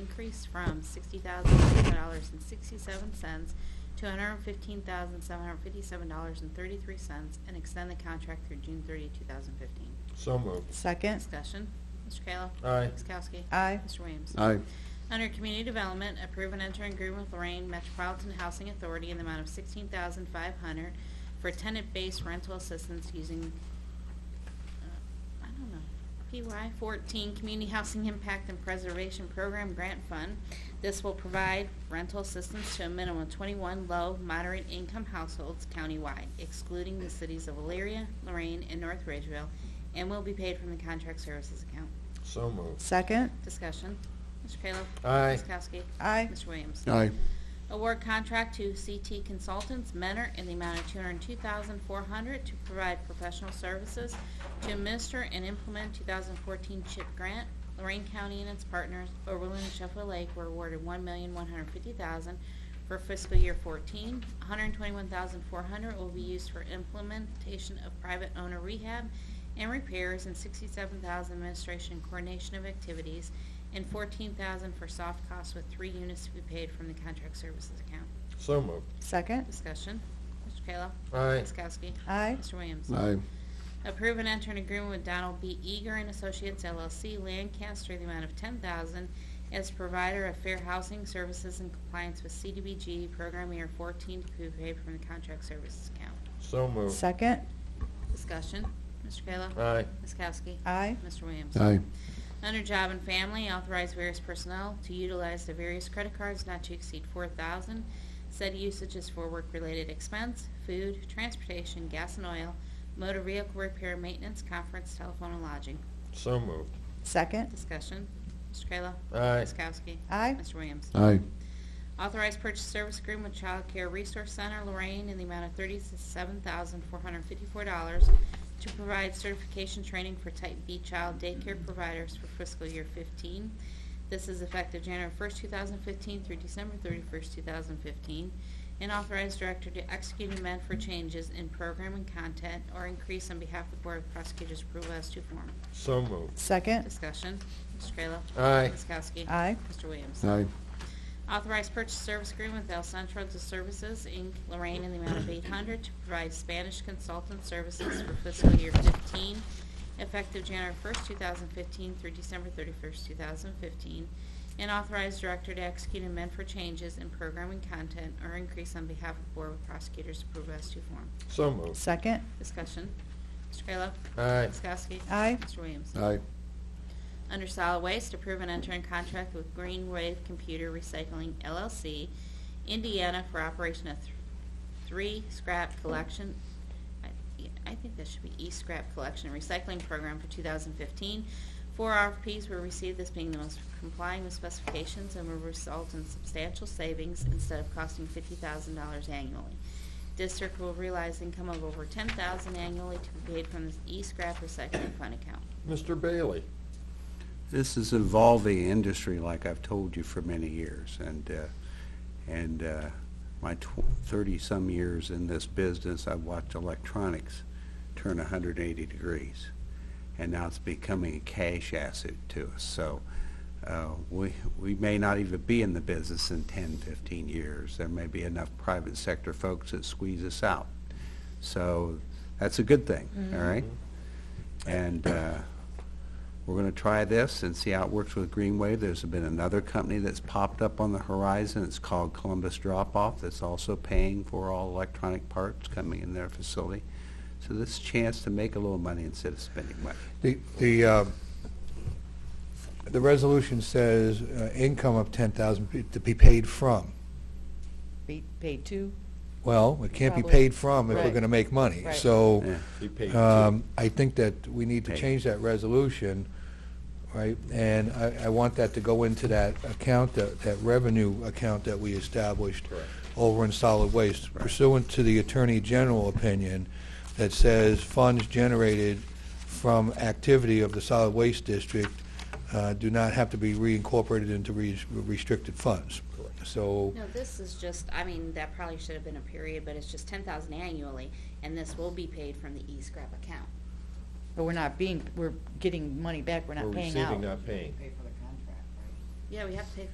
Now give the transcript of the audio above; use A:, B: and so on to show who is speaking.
A: increase from sixty thousand seven dollars and sixty-seven cents to one hundred fifteen thousand seven hundred fifty-seven dollars and thirty-three cents, and extend the contract through June 30, 2015.
B: So moved.
C: Second.
A: Discussion. Mr. Kayla.
B: Aye.
A: Ms. Kowski.
C: Aye.
A: Mr. Williams.
D: aye,
A: Under Community Development, approve and enter agreement with Lorraine Metropolitan Housing Authority in the amount of sixteen thousand five hundred for tenant-based rental assistance using, uh, I don't know, PY fourteen Community Housing Impact and Preservation Program Grant Fund. This will provide rental assistance to a minimum of twenty-one low, moderate-income households countywide, excluding the cities of Elyria, Lorraine, and North Ridgeville, and will be paid from the contract services account.
B: So moved.
C: Second.
A: Discussion. Mr. Kayla.
B: Aye.
A: Ms. Kowski.
C: Aye.
A: Mr. Williams.
D: aye,
A: Award contract to CT Consultants, Mentor, in the amount of 202400 to provide professional services to administer and implement 2014 CHIP grant. Lorraine County and its partners, Oberlin and Sheffield Lake, were awarded $1,150,000 for fiscal year 14. $121,400 will be used for implementation of private owner rehab and repairs, and $67,000 administration and coordination of activities, and $14,000 for soft costs with three units to be paid from the contract services account.
B: So moved.
C: Second.
A: Discussion. Mr. Kayla.
B: Aye.
A: Ms. Kowski.
C: Aye.
A: Mr. Williams.
D: aye,
A: Approve and enter an agreement with Donald B. Eager and Associates LLC Lancaster, the amount of ten thousand as provider of fair housing services in compliance with CDBG program year fourteen to be paid from the contract services account.
B: So moved.
C: Second.
A: Discussion. Mr. Kayla.
B: Aye.
A: Ms. Kowski.
C: Aye.
A: Mr. Williams.
D: aye,
A: Under Job and Family, authorize various personnel to utilize the various credit cards not to exceed four thousand. Said usage is for work-related expense, food, transportation, gas and oil, motor vehicle repair, maintenance, conference, telephone, and lodging.
B: So moved.
C: Second.
A: Discussion. Mr. Kayla.
B: Aye.
A: Ms. Kowski.
C: Aye.
A: Mr. Williams.
D: aye,
A: Authorized purchase service agreement with Child Care Resource Center Lorraine in the amount of $37,454 to provide certification training for Type B child daycare providers for fiscal year 15. This is effective January 1st, 2015 through December 31st, 2015. And authorized director to execute and amend for changes in program and content or increase on behalf of the Board of Prosecutors' approval as to form.
B: So moved.
C: Second.
A: Discussion. Mr. Kayla.
B: Aye.
A: Ms. Kowski.
C: Aye.
A: Mr. Williams.
D: aye,
A: Authorized purchase service agreement with El Centro de Services, Inc., Lorraine, in the amount of 800 to provide Spanish consultant services for fiscal year 15, effective January 1st, 2015 through December 31st, 2015, and authorized director to execute and amend for changes in programming content or increase on behalf of Board of Prosecutors approval as to form.
B: So moved.
C: Second.
A: Discussion. Mr. Kayla.
B: Aye.
A: Ms. Kowski.
C: Aye.
A: Mr. Williams.
D: aye,
A: Under solid waste, approve and enter in contract with Green Wave Computer Recycling LLC, Indiana for operation of th- three scrap collection, I- I think this should be e-scrap collection and recycling program for 2015. Four RFPs were received, this being the most complying with specifications and will result in substantial savings instead of costing $50,000 annually. District will realize income of over $10,000 annually to be paid from the e-scrap recycling fund account.
B: Mr. Bailey.
E: This is an evolving industry, like I've told you for many years, and, uh, and uh, my thirty-some years in this business, I've watched electronics turn hundred and eighty degrees, and now it's becoming a cash asset to us, so uh, we, we may not even be in the business in 10, 15 years. There may be enough private sector folks that squeeze us out, so that's a good thing, all right? And uh, we're going to try this and see how it works with Greenway. There's been another company that's popped up on the horizon. It's called Columbus Drop Off that's also paying for all electronic parts coming in their facility. So this chance to make a little money instead of spending money.
F: The, the, uh, the resolution says uh, income of 10,000 p- to be paid from.
C: Be paid two.
F: Well, it can't be
C: Probably.
F: paid from if we're
C: Right.
F: going to make money.
C: Right.
F: So
E: Yeah.
B: He paid
F: um, I think that we need to
E: Paid.
F: change that resolution, right? And I, I want that to go into that account, that that revenue account that we established
B: Correct.
F: over in solid waste
E: Right.
F: pursuant to the Attorney General opinion that says funds generated from activity of the solid waste district uh, do not have to be reincorporated into res- restricted funds.
B: Correct.
F: So,
A: No, this is just, I mean, that probably should have been a period, but it's just ten thousand annually, and this will be paid from the e-scrap account.
C: But we're not being, we're getting money back. We're
B: We're
C: not paying
B: receiving,
C: out.
B: not paying.
A: Yeah, we have to pay